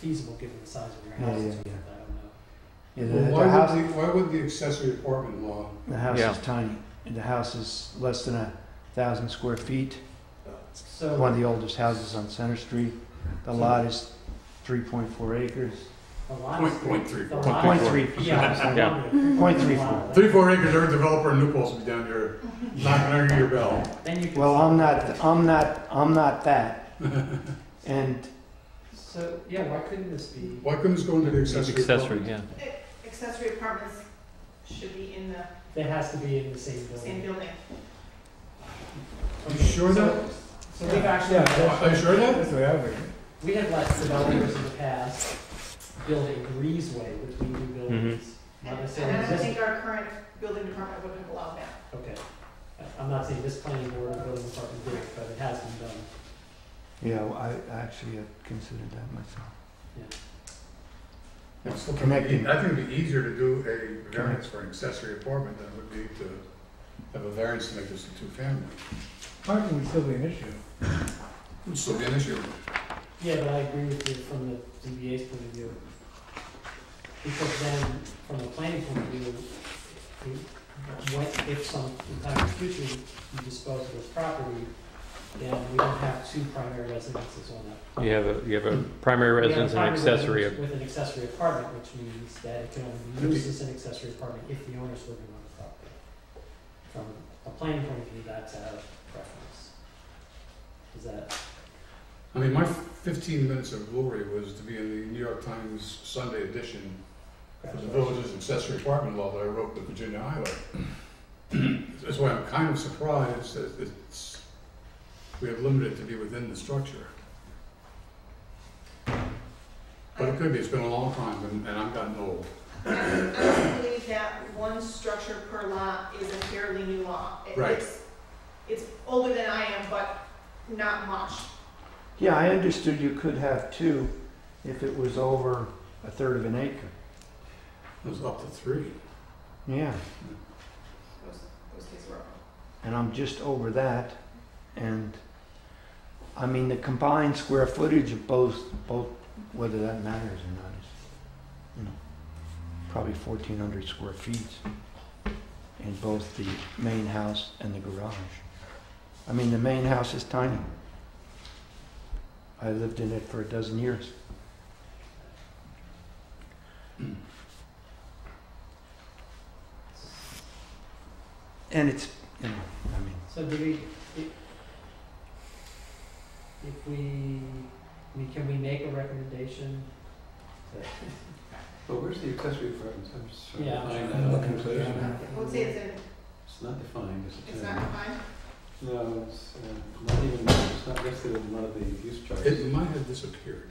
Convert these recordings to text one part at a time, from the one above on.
feasible given the size of your Yeah, house. yeah, and stuff, I yeah. don't know. Yeah, the, Well, the house, why would the, why would the accessory apartment law, the house Yeah. is tiny. And the house is less than a thousand square feet. So. One of the oldest houses on Center Street. The lot is 3.4 acres. The lot Point- is point three the four. lot- Point three four. Yeah. Sorry. the lot- the Point lot- three four. three, four acres, every developer in New Paltz will be down here knocking under your bell. Then you can. Well, I'm not, I'm not, I'm not that. And So, yeah, why couldn't this be? Why couldn't this go into the accessory Accessory, apartment? yeah. Accessory apartments should be in the It has to be in the same same building. building. You Okay, sure so- that? So we've Are actually, you sure of that? That's what I would. we have let developers in the past build a breezeway between new buildings. Not necessarily And and I don't existing. think our current building department would have allowed that. Okay. I- I'm not saying this planning board or building department did it, but it has been done. Yeah, well, I I actually have considered that myself. It's still Connecting. I think it'd be easier to do a variance for an accessory apartment than it would be to have a variance to make this a two-family. Parking would still be an issue. Would still be an issue. Yeah, but I agree with you from the ZBA's point of view. Because then, from the planning point of view, you- what if some, in time in the future, you dispose of this property, then we don't have two primary residences on that. You have a, you have a primary We have a residence and primary accessory. residence With an accessory apartment, which means that it can only be used as an accessory apartment if the owner's living on the property. From a planning point of view, that's out of preference. Is that, I mean, my fifteen minutes of glory was to be in the New York Times Sunday edition for the village's accessory apartment law that I wrote with Virginia Highway. That's why I'm kind of surprised that it's, we have limited to be within the structure. But it could be, it's been a long time and, and I've gotten old. I I believe that one structure per lot is a fairly new law. It- Right. It's, it's older than I am, but not much. Yeah, I understood you could have two if it was over a third of an acre. It was up to three. Yeah, Those, those days were over. and I'm just over that. And, I mean, the combined square footage of both, both, whether that matters or not is, you know, probably 1,400 square feet in both the main house and the garage. I mean, the main house is tiny. I lived in it for a dozen years. And it's, you know, I mean, so do we, i- if we, I mean, can we make a recommendation? But where's the accessory apartment? I'm just trying Yeah. to find that. Looking for it. Yeah. I would say it's in, It's not defined as a it's not term. defined. No, it's uh, not even, it's not listed in one of the use charts. It might have disappeared.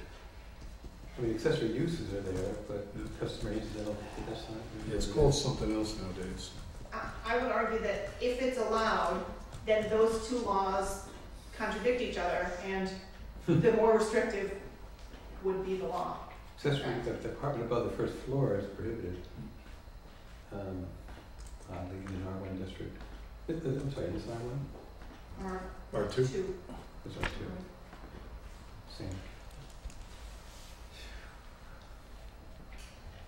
I mean, accessory uses are there, but customer uses, I don't think that's not. It's called something else nowadays. I, I would argue that if it's allowed, then those two laws contradict each other and the more restrictive would be the law. Accessory, the the apartment above the first floor is prohibited. Um, Oddly, in an R one district. Uh, uh, I'm sorry, is it R one? Or Or two. two. It's R two, same.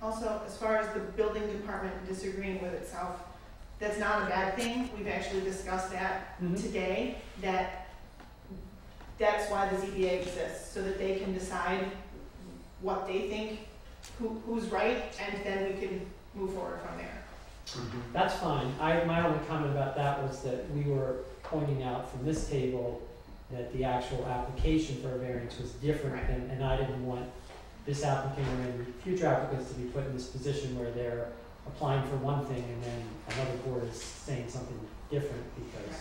Also, as far as the building department disagreeing with itself, that's not a bad thing. We've actually discussed that Mm-hmm. today, that that's why the ZBA exists, so that they can decide what they think, who, who's right, and then we can move forward from there. That's fine. I, my only comment about that was that we were pointing out from this table that the actual application for a variance was different Right. and, and I didn't want this applicant or any future applicants to be put in this position where they're applying for one thing and then another board is saying something different because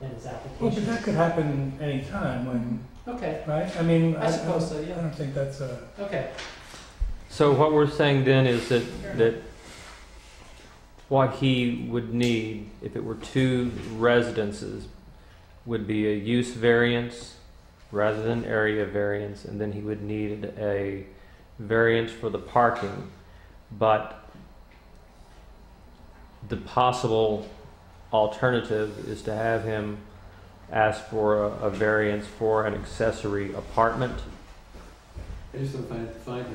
then his Well, but application. that could happen any time when, Okay, right? I mean, I suppose so, I yeah. don't think that's a. Okay, So what we're saying then is that, Fair that what he would need, if it were two residences, would be a use variance rather than area variance, and then he would need a variance for the parking, but the possible alternative is to have him ask for a, a variance for an accessory apartment. I just don't find it defined